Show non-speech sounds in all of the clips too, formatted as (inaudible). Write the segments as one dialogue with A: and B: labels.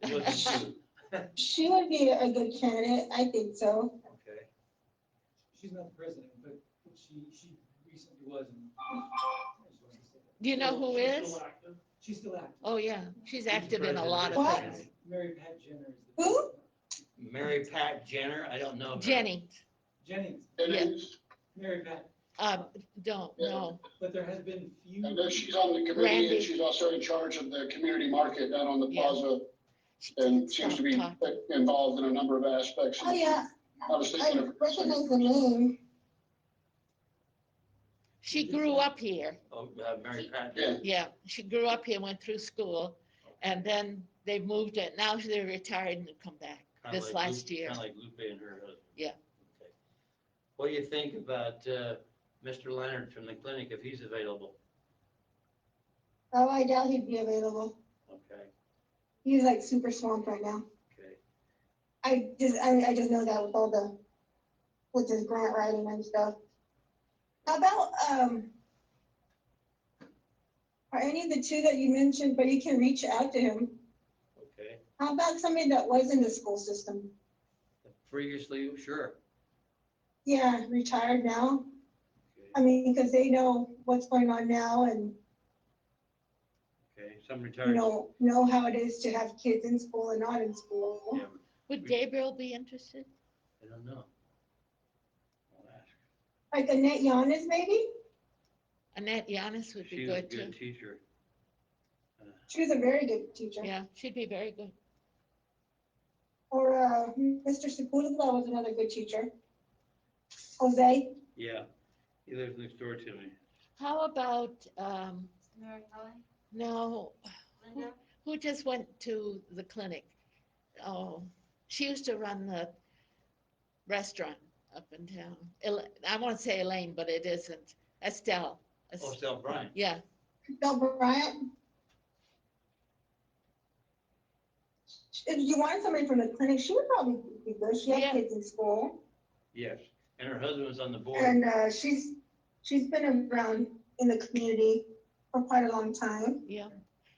A: What's she?
B: She would be a good candidate, I think so.
A: Okay.
C: She's not the president, but she, she recently was. and-
D: Do you know who is?
C: She's still active.
D: Oh, yeah, she's active in a lot of
B: What?
D: things.
C: Mary Pat Jenner is the.
B: Who?
A: Mary Pat Jenner, I don't know. her.
D: Jenny,
C: Jennings,
E: Jennings,
C: Mary Pat,
D: um, don't, no,
C: but there has been few.
E: and then she's on the committee,
D: Randy.
E: and she's also in charge of the community market down on the
D: Yeah.
E: plaza,
D: She
E: and
D: can't
E: seems
D: stop
E: Um, to be
D: talking.
E: uh, involved in a number of aspects.
B: Oh, yeah,
E: Honestly,
B: I
E: Jennifer,
B: recognize the name.
D: She grew up here,
A: Oh, uh, Mary Pat Jenner.
D: yeah, she grew up here, went through school, and then they moved it, now they're retired and come back.
A: Kinda
D: This
A: like
D: last year.
A: Kind of like Lupe and her husband.
D: Yeah.
A: Okay. What do you think about uh, Mr. Leonard from the clinic, if he's available?
B: Oh, I doubt he'd be available.
A: Okay,
B: He's like super swamped right now.
A: okay.
B: I just, I, I just know that with all the, with his grant writing and stuff. About, um, are any of the two that you mentioned, but you can reach out to him.
A: Okay.
B: How about somebody that was in the school system?
A: Previously, sure.
B: Yeah, retired now.
A: Okay.
B: I mean, because they know what's going on now and
A: Okay, some
B: you
A: retired.
B: know, know how it is to have kids in school and not in school.
A: Yeah, Mm.
D: Would Gabriel be interested?
A: I don't know. I'll ask.
B: Like Annette Yanes, maybe?
D: Annette Yanis would be
A: She's a
D: good too.
A: good teacher.
B: She was a very good teacher.
D: Yeah, she'd be very good.
B: Or uh, Mr. Sepulveda was another good teacher. Jose,
A: Yeah, he lives next door to me.
D: How about, um,
F: Mary Helen,
D: no,
F: Linda,
D: who just went to the clinic? Oh, she used to run the restaurant up in town. El- I won't say Elaine, but it isn't. Estelle. Es-
A: Oh, Sal Bryant.
D: Yeah,
B: Bill Bryant. If you wanted somebody from the clinic, she would probably be good. She
D: Yeah.
B: had kids in school.
A: Yes, and her husband was on the board.
B: And uh, she's, she's been around in the community for quite a long time.
D: yeah.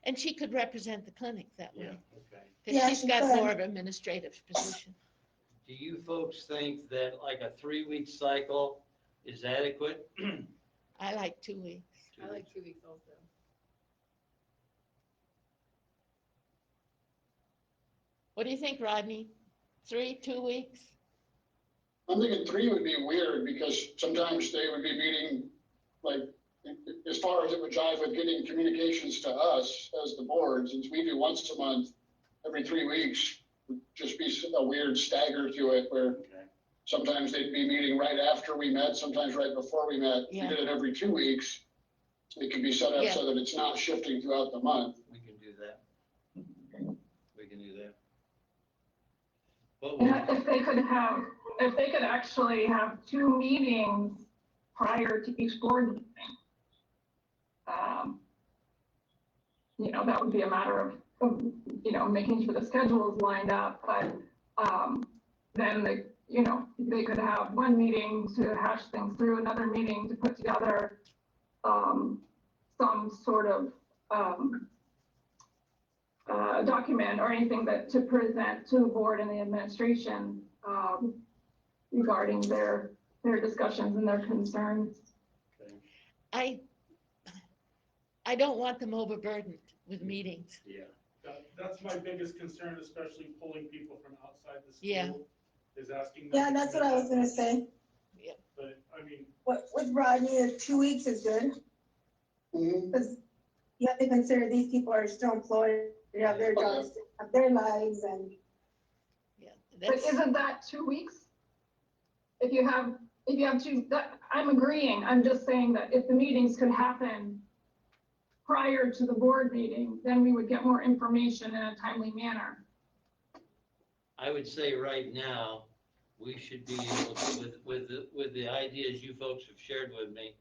D: And she could represent the clinic that
A: Yeah,
D: way.
A: okay.
B: Yeah,
D: Because she's
B: she
D: got
B: could.
D: more of administrative position.
A: Do you folks think that like a three-week cycle is adequate? (clears throat)
D: I like two weeks.
F: I like two weeks also.
D: What do you think, Rodney? Three, two weeks?
E: I'm thinking three would be weird, because sometimes they would be meeting, like, as far as it would jive with getting communications to us as the board, since we do once a month, every three weeks, would just be a weird stagger to it, where
A: Okay.
E: Sometimes they'd be meeting right after we met, sometimes right before we met. We
D: Yeah.
E: did it every two weeks. It could be set up so that it's not shifting throughout the month.
A: We can do that. We can do that. What
G: Yeah,
A: would,
G: if they could have, if they could actually have two meetings prior to each board meeting. um, You know, that would be a matter of, of, you know, making sure the schedule is lined up, but, um, then they, you know, they could have one meeting to hash things through, another meeting to put together, um, some sort of, um, uh, document or anything that to present to the board and the administration um, regarding their, their discussions and their concerns.
D: I, I don't want them overburdened with meetings.
A: yeah,
H: That, that's my biggest concern, especially pulling people from outside the
D: Yeah.
H: school, is asking. them
B: Yeah,
H: to
B: that's what I was
H: commit.
B: gonna say.
H: But, I mean,
B: What, with Rodney, if two weeks is good, because you have to consider these people are still employed, they have their jobs, they have their lives, and
D: Yeah,
G: But
D: that's,
G: isn't that two weeks? If you have, if you have two, that, I'm agreeing, I'm just saying that if the meetings could happen prior to the board meeting, then we would get more information in a timely manner.
A: I would say right now, we should be able to, with, with, the- with the ideas you folks have shared with me,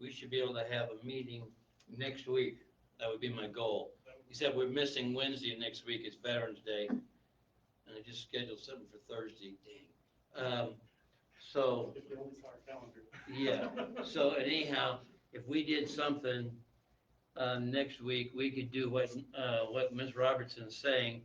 A: we should be able to have a meeting next week. That would be my goal. He said we're missing Wednesday next week, it's Veterans Day. And I just scheduled something for Thursday, dang. Um, so,
H: if they only saw our calendar.
A: yeah, so anyhow, if we did um, something, uh, next week, we could do what, uh, what Ms. Robertson's saying